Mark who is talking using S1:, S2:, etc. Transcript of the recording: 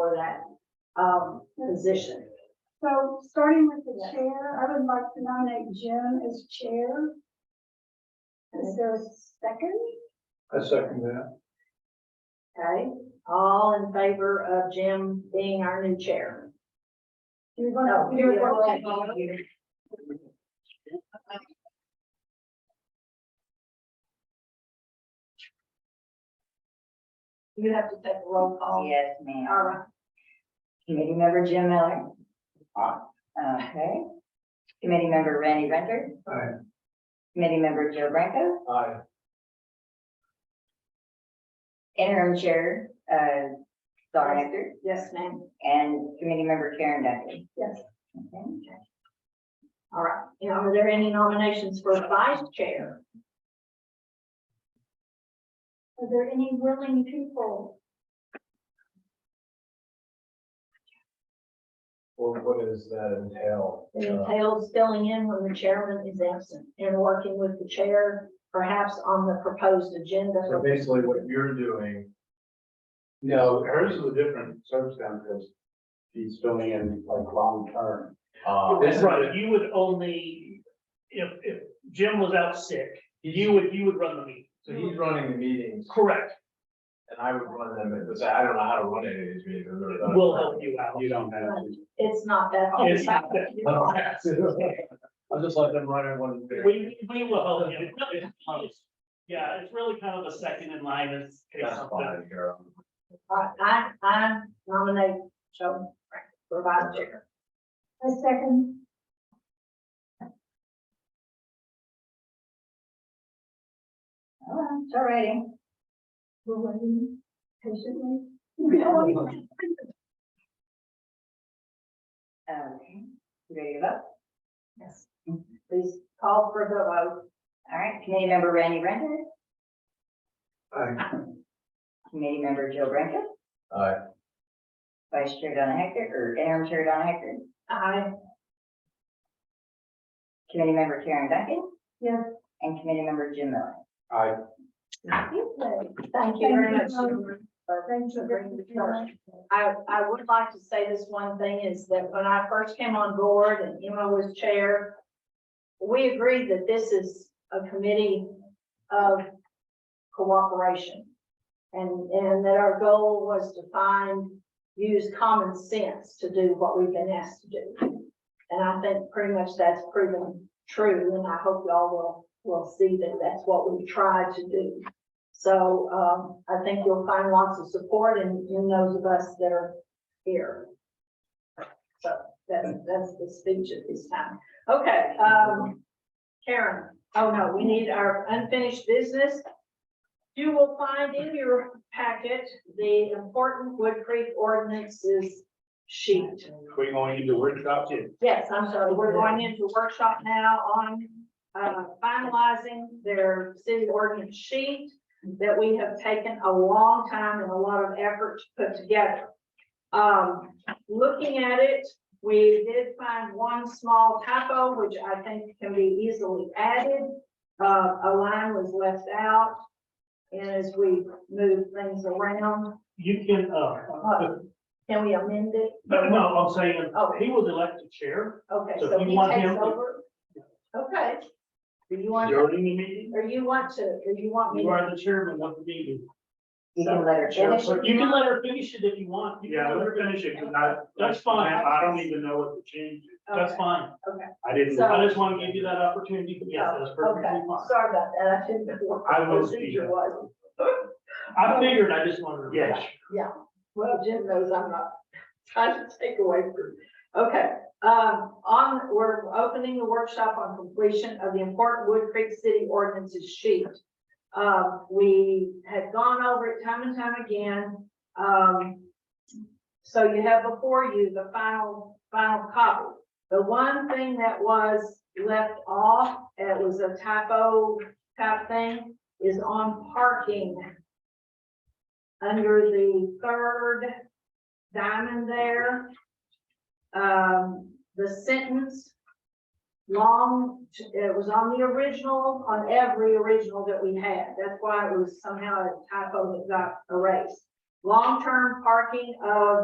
S1: that, um, position.
S2: So starting with the chair, I would like to nominate Jim as chair. Is there a second?
S3: I second that.
S1: Okay, all in favor of Jim being our new chair?
S2: Do you
S1: No,
S2: want to?
S1: you're welcome. Okay, You have to take a roll call.
S4: Oh, Yes,
S1: All
S4: ma'am.
S1: right,
S4: Committee member Jim Miller. Okay. Committee member Randy Renter,
S3: Aye.
S4: committee member Joe Branco,
S3: Aye.
S4: interim chair, uh, Dawn Hector,
S1: yes, ma'am.
S4: and committee member Karen Duffy.
S2: Yes.
S4: Okay.
S1: All right, now, are there any nominations for vice chair?
S2: Are there any willing people?
S3: Well, what does that entail? Uh,
S1: It entails filling in when the chairman is absent and working with the chair, perhaps on the proposed agenda.
S3: So basically what you're doing. No, hers is a different circumstance. She's filling in like long term. Uh, this is,
S5: Right, you would only, if, if Jim was out sick, you would, you would run the meeting.
S3: so he's running the meetings
S5: Correct,
S3: and I would run them, it was, I don't know how to run any of these meetings.
S5: we'll help you out.
S3: You don't have
S1: It's not that.
S5: Oh, It's not that-
S3: to. I'll just let them run everyone.
S5: We, we will help you. Yeah, it's really kind of a second in line is.
S3: That's fine, Carol.
S1: All right, I, I nominate Joe Frank for vice chair.
S2: A second?
S4: All right, it's all righty.
S2: We're waiting patiently.
S4: Okay, You ready to vote?
S1: Yes. Please call for the vote.
S4: All right, committee member Randy Renter,
S3: Aye.
S4: committee member Joe Branco,
S3: Aye.
S4: vice chair Donna Hector, or interim chair Donna Hector,
S1: Aye.
S4: committee member Karen Duncan.
S2: Yes.
S4: And committee member Jim Miller.
S3: Aye.
S1: Thank you very much.
S2: Thank you.
S1: for
S2: Thank you very
S1: bringing the
S2: much.
S1: charge. I, I would like to say this one thing is that when I first came on board and Emma was chair, we agreed that this is a committee of cooperation. And, and that our goal was to find, use common sense to do what we've been asked to do. And I think pretty much that's proven true, and I hope y'all will, will see that that's what we tried to do. So, um, I think you'll find lots of support in, in those of us that are here. So that's, that's the speech at this time. Okay, um, Karen, oh no, we need our unfinished business. You will find in your packet the important Wood Creek ordinances sheet.
S5: We're going into workshop too.
S1: Yes, I'm sorry, we're going into workshop now on uh, finalizing their city ordinance sheet that we have taken a long time and a lot of effort to put together. Um, Looking at it, we did find one small typo, which I think can be easily added. Uh, A line was left out, and as we move things around,
S5: You can, uh,
S1: uh, can we amend it?
S5: no, no, I'm saying,
S1: Oh.
S5: he was elected chair.
S1: Okay,
S5: So if
S1: so
S5: you
S1: he
S5: want
S1: takes
S5: him to-
S1: over? Okay. Do you want, or
S5: During the meeting,
S1: you want to, or you want me?
S5: you
S1: to-
S5: are the chairman of the meeting.
S4: You can let her finish.
S5: You can let her finish it if you want. Yeah, let her finish it, because I. That's fine.
S1: I don't
S5: even know what the change is.
S1: Okay.
S5: That's fine.
S1: Okay.
S5: I didn't.
S1: So-
S5: I just want to give you that opportunity, but yes, that's perfectly
S1: Okay,
S5: fine.
S1: sorry about that. I shouldn't have.
S5: I will be
S1: Procedure
S5: here.
S1: was,
S5: I figured, I just wanted to.
S1: Yeah. well, Jim knows I'm not trying to take away from. Okay, um, on, we're opening the workshop on completion of the important Wood Creek City ordinances sheet. Uh, we had gone over it time and time again. Um, so you have before you the final, final copy. The one thing that was left off, and it was a typo type thing, is on parking. Under the third diamond there. Um, the sentence. Long, it was on the original, on every original that we had. That's why it was somehow a typo that got erased. Long-term parking of